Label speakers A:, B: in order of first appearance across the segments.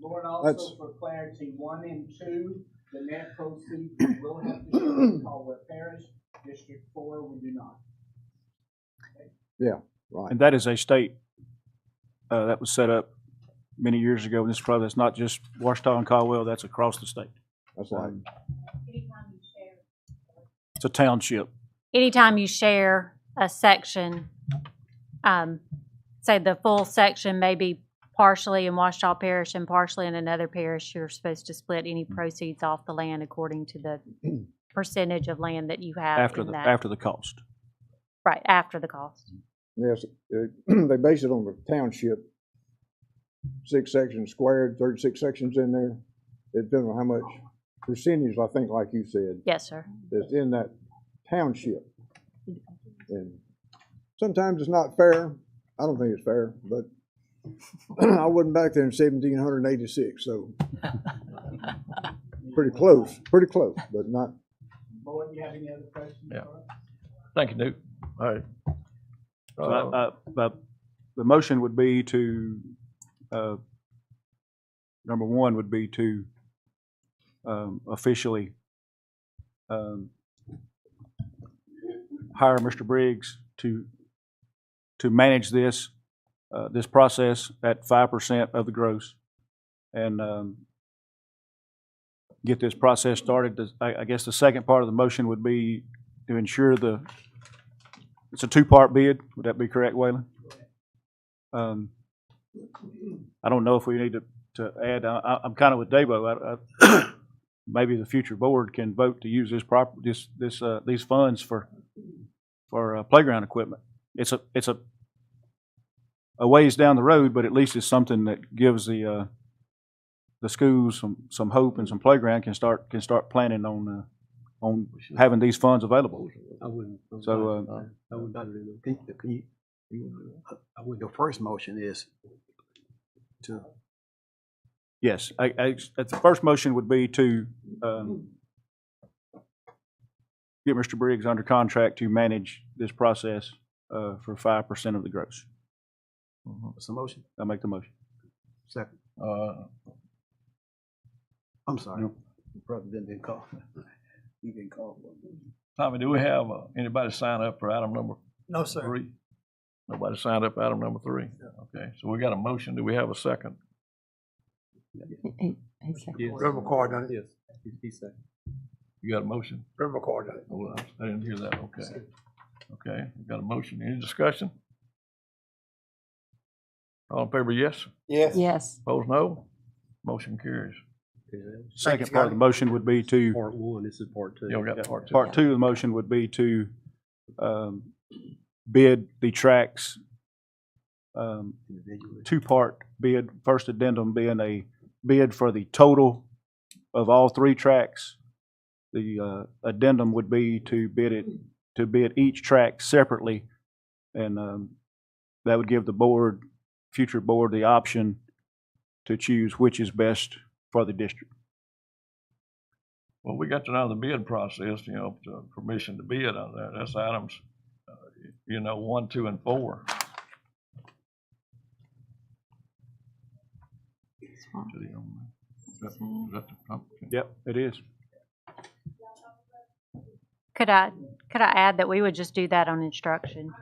A: Lauren
B: That's-
A: also for clarity, one and two, the net proceeds we will have to share with Caldwell Parish, District Four, we do not.
B: Right.
C: And that is a state uh, that was set up many years ago in this club. That's not just Washita and Caldwell, that's across the state.
B: That's like,
D: Anytime you share.
C: It's a township.
D: Anytime you share a section, um, say the full section may be partially in Washita Parish and partially in another parish, you're supposed to split any
C: Mm-hmm.
D: proceeds off the land according to the percentage of land that you have
C: after
D: in
C: the, Mm-hmm.
D: that.
C: after the cost.
D: Right, after the cost.
B: yes, it- they base it on the township. Six sections squared, thirty-six sections in there. It depends on how much percentage, I think, like you said,
D: Yes, sir.
B: that's in that township. And sometimes it's not fair. I don't think it's fair, but I wasn't back there in seventeen hundred and eighty-six, so pretty close, pretty close, but not,
A: Lauren, you have any other questions?
E: Yeah.
A: for us?
E: Thank you, Duke. uh, All right.
C: So I- I- But the motion would be to, uh, number one would be to um, officially um, hire Mr. Briggs to, to manage this, uh, this process at five percent of the gross. And um, get this process started. The- I, I guess the second part of the motion would be to ensure the it's a two-part bid, would that be correct, Waylon? Um, I don't know if we need to, to add, I- I, I'm kind of with Debo, I, I, maybe the future board can vote to use this prop, this, this, uh, these funds for, for uh, playground equipment. It's a, it's a, a ways down the road, but at least it's something that gives the, uh, the schools some, some hope and some playground can start, can start planning on, uh, on having these funds available.
F: I wouldn't. I wouldn't
C: So,
F: mind.
C: uh,
F: I wouldn't mind doing that. Can you- can you- you- I would, the first motion is to,
C: Yes, I, I, at the first motion would be to, um, get Mr. Briggs under contract to manage this process, uh, for five percent of the gross.
F: it's a motion,
C: I make the motion.
F: second,
E: Uh,
F: I'm sorry. Brother didn't, didn't call. You didn't call.
E: Tommy, do we have uh, anybody sign up for item number
F: No, sir.
E: three? Nobody signed up for item number three? Okay, so we got a motion. Do we have a second?
F: Reverend Carr done it. Yes, he said.
E: You got a motion?
F: Reverend Carr done it.
E: Oh, I didn't hear that. Okay. Okay, we got a motion. Any discussion? All in favor, yes?
G: Yes.
E: Opposed, no? Motion carries.
C: Second part of the motion would be to,
F: Part one, this is part two.
E: Yeah, we got part two.
C: part two of the motion would be to, um, bid the tracks, um,
F: Individually.
C: two-part bid, first addendum being a bid for the total of all three tracks. The uh, addendum would be to bid it, to bid each track separately, and um, that would give the board, future board, the option to choose which is best for the district.
E: Well, we got to know the bid process, you know, to- permission to bid on that. That's items, uh, you know, one, two, and four. Is that- is that the pumpkin?
C: Yep, it is.
D: Could I, could I add that we would just do that on instruction?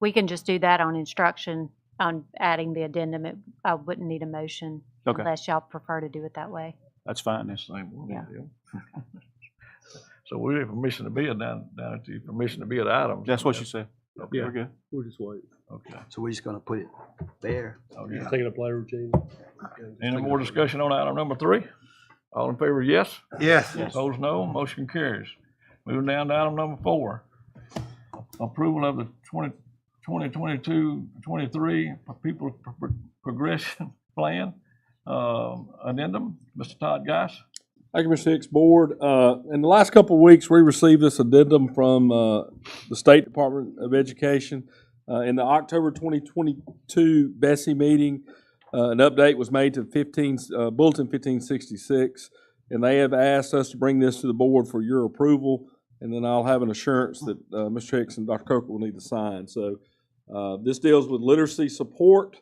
D: We can just do that on instruction, on adding the addendum. It- I wouldn't need a motion
C: Okay.
D: unless y'all prefer to do it that way.
C: That's fine.
E: That's
C: That's-
E: the same one,
D: Yeah.
E: yeah. So we have permission to bid down, down at the permission to bid items.
C: That's what you said.
E: Okay,
C: We're good.
H: We'll just wait.
E: Okay.
F: So we're just gonna put it there.
E: Okay.
H: Take it up later, Gene.
E: Oh, Any more discussion on item number three? All in favor, yes?
F: Yes.
E: Opposed, no. Motion carries. Moving down to item number four. Approval of the 20 2022-23 People Pro- Progression Plan um, Addendum. Mr. Todd Geis.
H: Thank you, Mr. Hicks. Board, uh, in the last couple of weeks, we received this addendum from uh, the State Department of Education. Uh, In the October 2022 Bessie meeting, uh, an update was made to 15, uh, Bulletin 1566, and they have asked us to bring this to the board for your approval, and then I'll have an assurance that uh, Mr. Hicks and Dr. Coker will need to sign. So uh, this deals with literacy support